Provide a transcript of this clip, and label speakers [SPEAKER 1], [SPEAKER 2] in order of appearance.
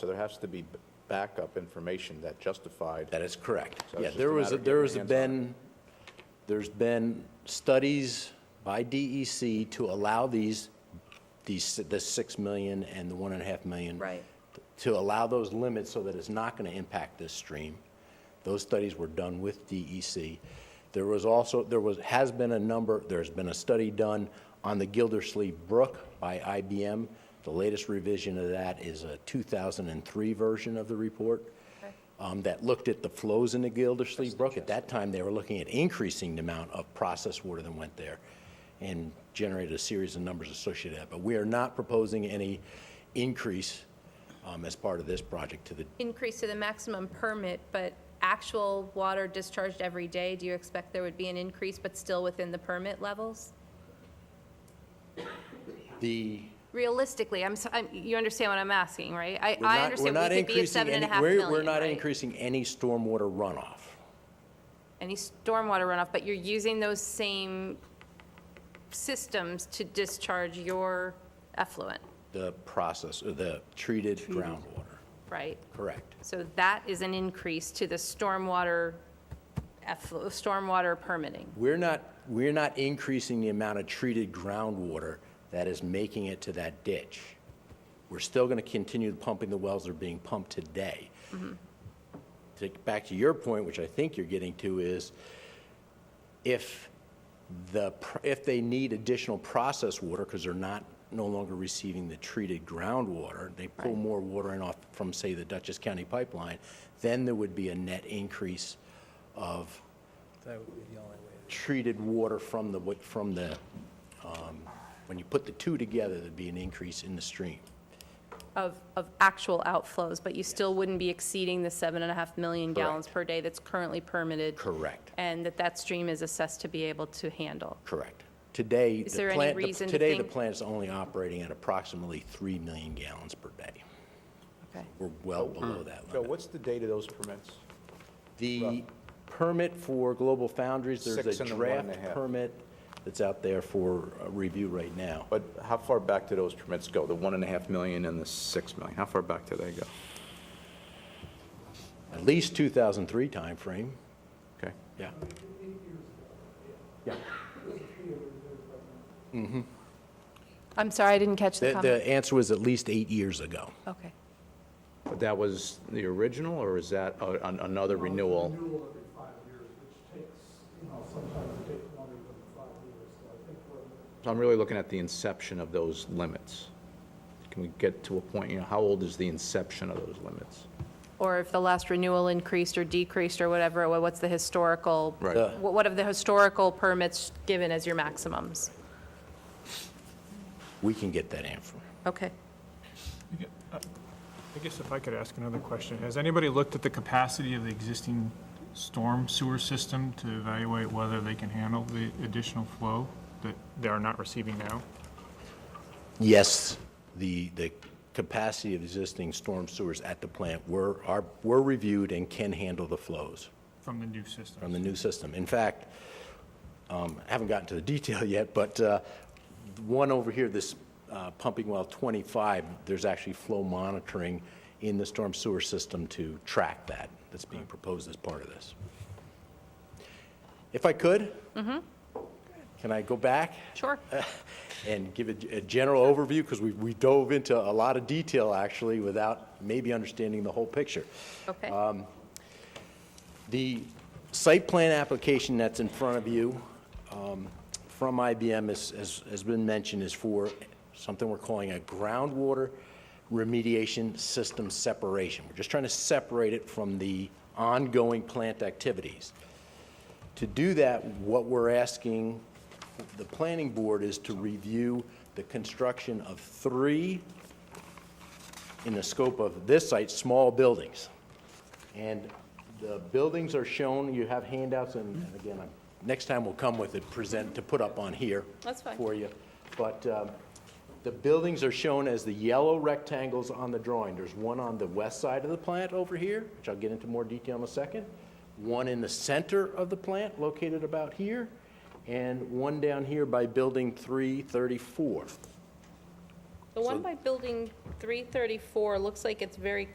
[SPEAKER 1] So there has to be b- backup information that justified.
[SPEAKER 2] That is correct.
[SPEAKER 1] So it's
[SPEAKER 2] Yeah,
[SPEAKER 1] just
[SPEAKER 2] there
[SPEAKER 1] a
[SPEAKER 2] was,
[SPEAKER 1] matter
[SPEAKER 2] a-
[SPEAKER 1] of
[SPEAKER 2] there
[SPEAKER 1] getting
[SPEAKER 2] was a
[SPEAKER 1] your hands on
[SPEAKER 2] been, there's been studies by DEC to allow these, these, the 6 million and the 1.5 million.
[SPEAKER 3] Right.
[SPEAKER 2] To allow those limits so that it's not going to impact this stream. Those studies were done with DEC. There was also, there was, has been a number, there's been a study done on the Gildersleeve Brook by IBM. The latest revision of that is a 2003 version of the report um, that looked at the flows in the Gildersleeve Brook. At that time, they were looking at increasing the amount of processed water that went there and generated a series of numbers associated with that. But we are not proposing any increase um, as part of this project to the,
[SPEAKER 3] increase to the maximum permit, but actual water discharged every day, do you expect there would be an increase, but still within the permit levels?
[SPEAKER 2] the
[SPEAKER 3] Realistically, I'm, s- I'm- you understand what I'm asking, right? I,
[SPEAKER 2] We're
[SPEAKER 3] I
[SPEAKER 2] not-
[SPEAKER 3] understand
[SPEAKER 2] we're not
[SPEAKER 3] we could be at
[SPEAKER 2] increasing
[SPEAKER 3] seven and a
[SPEAKER 2] any-
[SPEAKER 3] half
[SPEAKER 2] we're-
[SPEAKER 3] million,
[SPEAKER 2] We're not
[SPEAKER 3] right?
[SPEAKER 2] increasing any stormwater runoff.
[SPEAKER 3] Any stormwater runoff, but you're using those same systems to discharge your effluent,
[SPEAKER 2] The process, uh, the treated groundwater,
[SPEAKER 3] right?
[SPEAKER 2] correct.
[SPEAKER 3] So that is an increase to the stormwater, efflu- stormwater permitting.
[SPEAKER 2] We're not, we're not increasing the amount of treated groundwater that is making it to that ditch. We're still going to continue pumping the wells that are being pumped today. To get back to your point, which I think you're getting to, is if the, pr- if they need additional processed water, because they're not, no longer receiving the treated groundwater, they pull more water in off from, say, the Dutchess County pipeline, then there would be a net increase of treated water from the, wa- from the, um, when you put the two together, there'd be an increase in the stream.
[SPEAKER 3] Of, of actual outflows, but you still wouldn't be exceeding the seven and a half million gallons per day that's currently permitted?
[SPEAKER 2] Correct.
[SPEAKER 3] And that that stream is assessed to be able to handle?
[SPEAKER 2] Correct. Today,
[SPEAKER 3] Is
[SPEAKER 2] the
[SPEAKER 3] there any
[SPEAKER 2] plant, the-
[SPEAKER 3] reason to
[SPEAKER 2] today, the
[SPEAKER 3] think-
[SPEAKER 2] plant's only operating at approximately 3 million gallons per day.
[SPEAKER 3] Okay.
[SPEAKER 2] We're well
[SPEAKER 1] Hmm.
[SPEAKER 2] below that
[SPEAKER 1] Joe,
[SPEAKER 2] limit.
[SPEAKER 1] what's the date of those permits?
[SPEAKER 2] The permit for Global Foundries,
[SPEAKER 1] Six
[SPEAKER 2] there's a
[SPEAKER 1] and the one and a
[SPEAKER 2] draft
[SPEAKER 1] half.
[SPEAKER 2] permit that's out there for uh, review right now.
[SPEAKER 1] But how far back do those permits go? The one and a half million and the six million? How far back do they go?
[SPEAKER 2] At least 2003 timeframe,
[SPEAKER 1] Okay.
[SPEAKER 2] yeah.
[SPEAKER 3] I'm sorry, I didn't catch the
[SPEAKER 2] The,
[SPEAKER 3] comment.
[SPEAKER 2] the answer was at least eight years ago.
[SPEAKER 3] Okay.
[SPEAKER 1] But that was the original, or is that a- an- another renewal?
[SPEAKER 4] renewal every five years, which takes, you know, sometimes it takes longer than five years. So I think we're,
[SPEAKER 1] So I'm really looking at the inception of those limits. Can we get to a point, you know, how old is the inception of those limits?
[SPEAKER 3] Or if the last renewal increased or decreased or whatever, wha- what's the historical?
[SPEAKER 1] Right.
[SPEAKER 2] The-
[SPEAKER 3] wha- What have the historical permits given as your maximums?
[SPEAKER 2] We can get that answer.
[SPEAKER 3] Okay.
[SPEAKER 5] I guess if I could ask another question, has anybody looked at the capacity of the existing storm sewer system to evaluate whether they can handle the additional flow that they are not receiving now?
[SPEAKER 2] Yes, the, the capacity of existing storm sewers at the plant were, are, were reviewed and can handle the flows
[SPEAKER 5] From the new system?
[SPEAKER 2] from the new system. In fact, um, I haven't gotten to the detail yet, but uh, one over here, this uh, pumping well 25, there's actually flow monitoring in the storm sewer system to track that, that's being proposed as part of this. If I could? Can I go back?
[SPEAKER 3] Sure.
[SPEAKER 2] and give a, a general overview, because we, we dove into a lot of detail, actually, without maybe understanding the whole picture.
[SPEAKER 3] Okay.
[SPEAKER 2] The site plan application that's in front of you um, from IBM is, is- has been mentioned, is for something we're calling a groundwater remediation system separation. We're just trying to separate it from the ongoing plant activities. To do that, what we're asking the planning board is to review the construction of three, in the scope of this site, small buildings. And the buildings are shown, you have handouts, and and again, I'm- next time we'll come with it, present, to put up on here.
[SPEAKER 3] That's fine.
[SPEAKER 2] For you. But um, the buildings are shown as the yellow rectangles on the drawing. There's one on the west side of the plant over here, which I'll get into more detail in a second, one in the center of the plant, located about here, and one down here by Building 334.
[SPEAKER 3] The one by building 334 looks like it's very